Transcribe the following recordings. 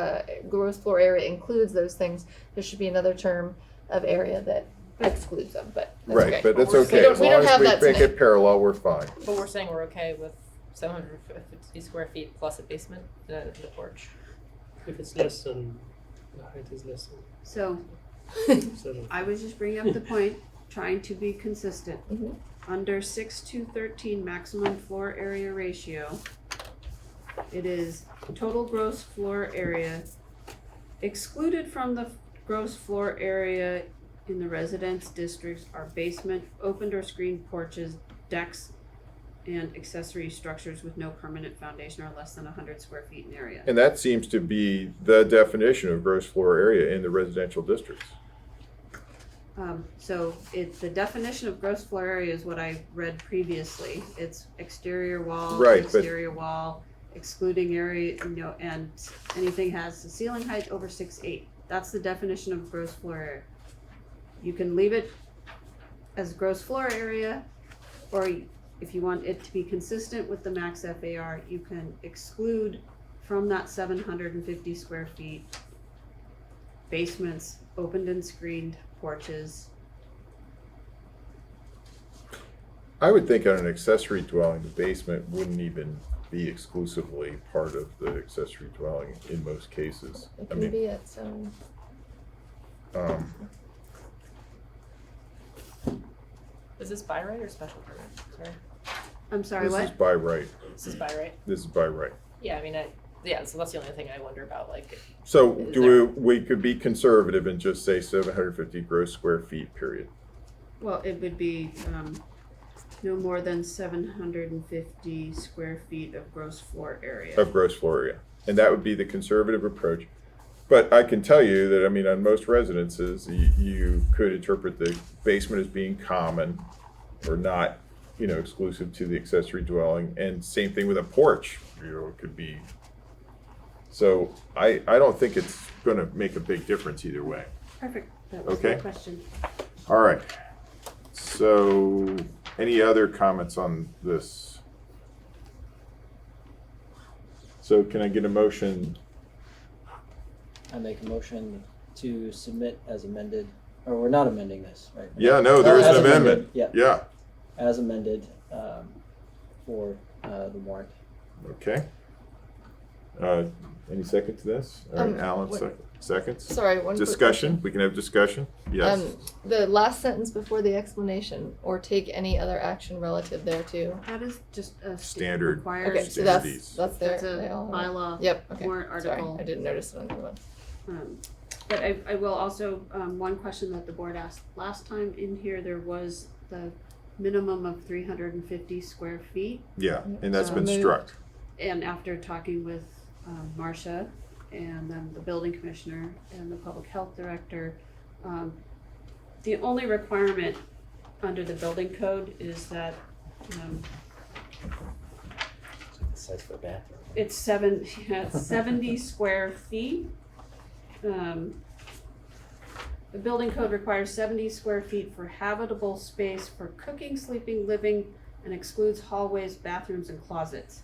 uh, gross floor area includes those things, there should be another term of area that excludes them, but that's okay. Right, but that's We're okay, saying- as We long don't have as that we make tonight. it parallel, we're fine. But we're saying we're okay with seven hundred fifty square feet plus a basement and a- and a porch. If it's less than, the height is less So than seven. I was just bringing up the point, trying to be consistent. Mhm. Under six to thirteen maximum floor area ratio, it is total gross floor area excluded from the gross floor area in the residence districts are basement, open or screened porches, decks, and accessory structures with no permanent foundation or less than hundred square feet in area. And that seems to be the definition of gross floor area in the residential districts. Um, so it's the definition of gross floor area is what I read previously. It's exterior wall, Right, but- exterior wall, excluding area, you know, and anything has a ceiling height over six eight. That's the definition of gross floor area. You can leave it as gross floor area, or you- if you want it to be consistent with the max FAR, you can exclude from that seven hundred and fifty square feet basements, opened and screened porches, I would think on an accessory dwelling, the basement wouldn't even be exclusively part of the accessory dwelling in most cases. It I can mean, be its own, um, Is this by right or special permit? Sorry, I'm sorry, this is what? by right, this is by right. this is by right. Yeah, I mean, I, yeah. So that's the only thing I wonder about. Like, So Is do we, we could be conservative and just say seven hundred fifty gross square feet, period. Well, it would be, um, no more than seven hundred and fifty square feet of gross floor area. of gross floor area. And that would be the conservative approach. But I can tell you that, I mean, on most residences, you, you could interpret the basement as being common or not, you know, exclusive to the accessory dwelling. And same thing with a porch, you know, it could be. So I, I don't think it's gonna make a big difference either way. Perfect, that was my Okay. question. All right. So any other comments on this? So can I get a motion I make a motion to submit as amended, or we're not amending this, right? Yeah, no, there is As an amendment. Yeah, Yeah, as amended, um, for, uh, the warrant. okay. Uh, Any second to this? All right, Um, Alan, what- sec- seconds? sorry, one quick. Discussion, we can have discussion? Yes. Um, the last sentence before the explanation, or take any other action relative thereto. That is just a. st- Standard. Required. Okay, so that's, Standards. that's their, That's they a all have it. bylaw. Yep, okay, warrant sorry, article. I didn't notice it on the other one. Um, But I, I will also, um, one question that the board asked last time in here, there was the minimum of three hundred and fifty square feet. Yeah, and that's So been moved. struck. And after talking with um, Marcia and then the building commissioner and the public health director, um, the only requirement under the building code is that um, Size for a bathroom. it's seven, yeah, it's seventy square feet. Um, The building code requires seventy square feet for habitable space for cooking, sleeping, living, and excludes hallways, bathrooms, and closets.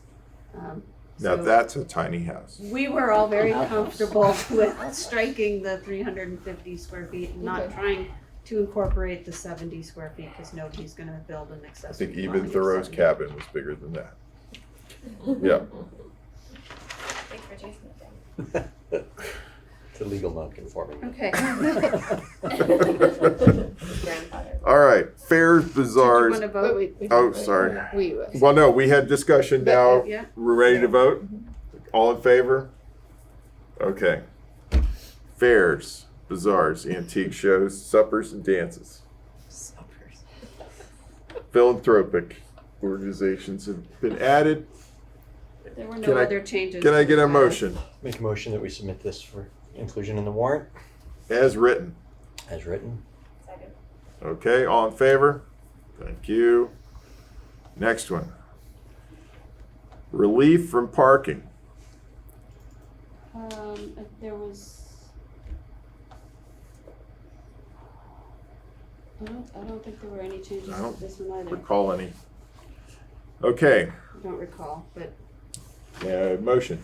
Um, Now, so- that's a tiny house. we were all very Outhouse. comfortable with striking the three hundred and fifty square feet and not Okay. trying to incorporate the seventy square feet, cause nobody's gonna build an I accessory think dwelling. even of Thoreau's 70. cabin was bigger than that. Yeah, Big for Jason to think. It's a legal non-conforming. Okay, Grandfather. all right, fairs, do you bazaars. wanna Wait, vote? wait, we. Oh, wait, sorry. We, uh, Well, no, we had discussion But, now. uh, yeah. Mm-hmm. We're ready to vote? All in favor? Okay. Fairs, bazaars, antique shows, suppers and dances. suppers. philanthropic organizations have been added. There were no Can I- other changes. Can I get a motion Make a motion that we submit this for inclusion in the warrant as written? as written. Second. Okay, all in favor? Thank you. Next one. Relief from parking. Um, uh, there was. I don't, I don't think there were any changes I to don't this one either, Recall any? Okay, I don't recall, but uh, motion.